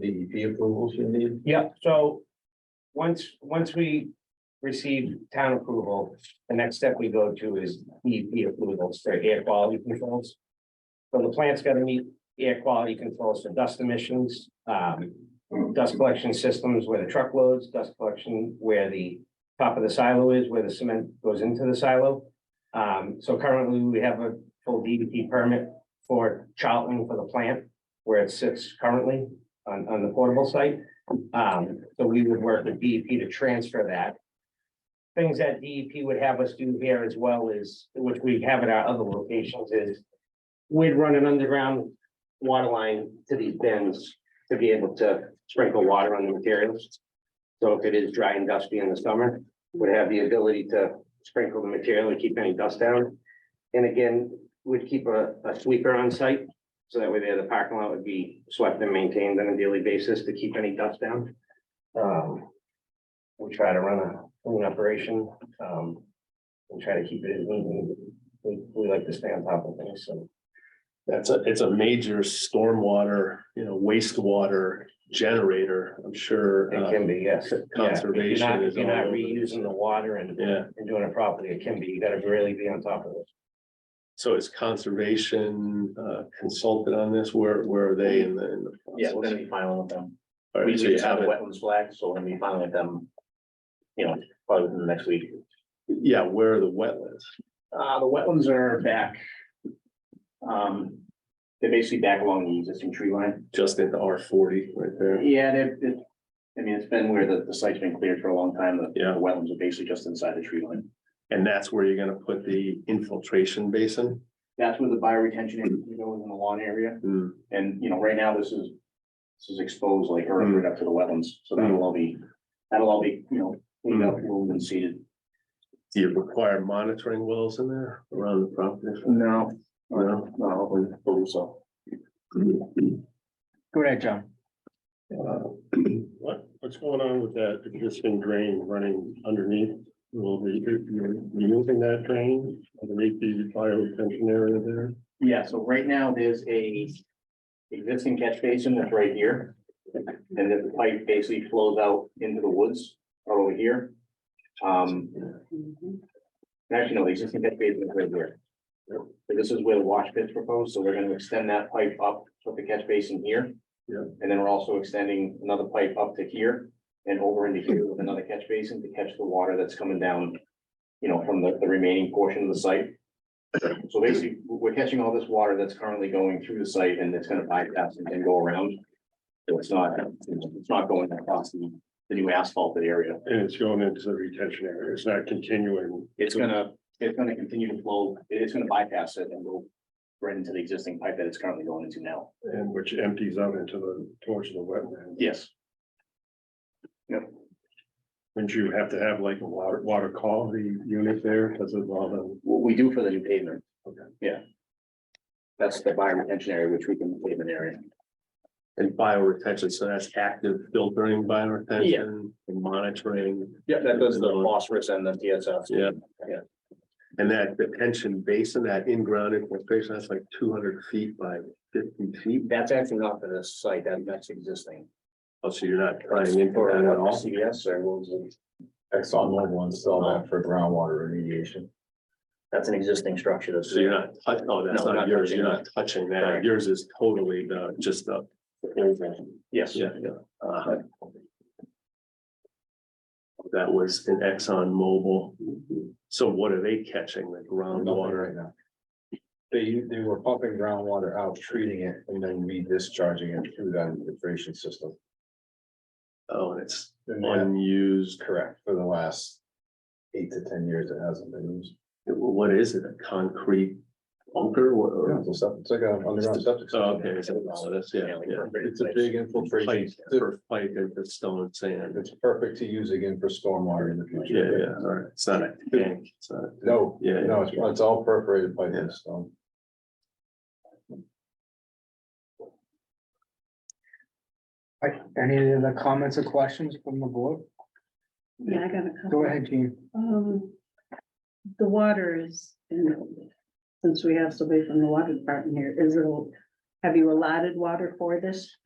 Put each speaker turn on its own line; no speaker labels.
The DEP approvals you need?
Yeah, so once, once we receive town approval, the next step we go to is DEP approvals for air quality controls. So the plant's gotta meet air quality controls for dust emissions, um, dust collection systems where the truck loads, dust collection where the top of the silo is, where the cement goes into the silo. Um, so currently we have a full DEP permit for Charlton for the plant where it sits currently on, on the portable site. Um, so we would work with DEP to transfer that. Things that DEP would have us do here as well is, which we have at our other locations is. We'd run an underground water line to these bins to be able to sprinkle water on the materials. So if it is dry and dusty in the summer, would have the ability to sprinkle the material and keep any dust down. And again, would keep a, a sweeper on site so that way there, the parking lot would be swept and maintained on a daily basis to keep any dust down. Um, we try to run a clean operation, um, and try to keep it as neat and we, we like to stay on top of things, so.
That's a, it's a major stormwater, you know, wastewater generator, I'm sure.
It
uh,
can be, yes. Yeah, if you're not-
Conservation
If
is
you're not
all over this.
reusing the water and,
Yeah,
and doing it properly, it can be, you gotta really be on top of it.
so is conservation uh, consulted on this? Where, where are they in the? in the
Yeah, we're
process?
gonna be filing with them.
All
We
right, so you
just have a
haven't,
wetlands flag, so we're gonna be filing with them. You know, probably within the next week.
yeah, where are the wetlands?
Uh, the wetlands are back. Um, they're basically back along the existing tree line.
Just in the R forty right there.
Yeah, they're, they're- I mean, it's been where the, the site's been cleared for a long time. The
Yeah.
the wetlands are basically just inside the tree line.
And that's where you're gonna put the infiltration basin?
That's where the bioretention is, goes in the lawn area.
Hmm,
And, you know, right now, this is, this is exposed like earth right up to the wetlands, so that'll all be, that'll all be, you know, cleaned up, moved and seeded.
Do you require monitoring wells in there around the property?
No,
No?
no, hopefully, believe so.
Go ahead, John.
What, what's going on with that existing drain running underneath? Will be, you're removing that drain underneath the bio retention area there?
Yeah, so right now, there's a existing catch basin that's right here. And then the pipe basically flows out into the woods out over here. Um. Actually, no, the existing catch basin is right here. So This is where the wash pit's proposed, so we're gonna extend that pipe up, put the catch basin here.
Yeah.
And then we're also extending another pipe up to here and over into here with another catch basin to catch the water that's coming down. You know, from the, the remaining portion of the site. So basically, we're catching all this water that's currently going through the site and it's gonna bypass and then go around. So it's not, it's not going across the, the new asphalted area.
And it's going into the retention area. It's not continuing.
It's gonna, it's gonna continue to flow, it's gonna bypass it and go right into the existing pipe that it's currently going into now.
And which empties out into the, towards the wetland.
Yes.
Wouldn't you have to have like a water, water quality unit there because of all the,
What we do for the new pavement.
Okay.
Yeah. That's the bio retention area, which we can pavement area.
And bioretention, so that's active filtering bioretention and monitoring.
Yeah,
that does the
phosphorus and the TSF.
Yeah. And that detention basin, that in-ground infiltration, that's like two hundred feet by fifty feet.
That's actually not for this site, that, that's existing.
Oh, So you're not running into
Or,
that at
uh,
all?
CVS or what was it?
ExxonMobil installed that for groundwater remediation.
That's an existing structure that's.
So you're not, tou- oh, that's
No,
not
not
yours. You're
touching
not touching that.
Correct.
Yours is totally the, just the.
Yes.
Yeah, yeah. Uh-huh. That was an Exxon Mobil. So what are they catching? Like
Nothing
groundwater?
right now. They, they were pumping groundwater out, treating it, and then re-discharging it through that filtration system.
Oh, and it's
And that-
unused.
correct, for the last eight to ten years, it hasn't been used.
What is it? A concrete bunker? What-
Yeah, It's a sep- it's like an underground septic.
Oh,
system.
Okay, it's a, oh, that's, yeah, yeah.
It's a big infiltration.
Pipe
It's
for pipe into stone and sand.
it's perfect to use again for stormwater in the
Yeah,
future.
yeah, all right. It's not a tank. It's not.
No,
Yeah,
no, it's, it's all perforated by
Yeah.
this stone.
Like, Any other comments or questions from the board?
Yeah, I got a couple.
Go ahead, Jean.
Um, the water is, and since we have somebody from the water department here, is it, have you allotted water for this?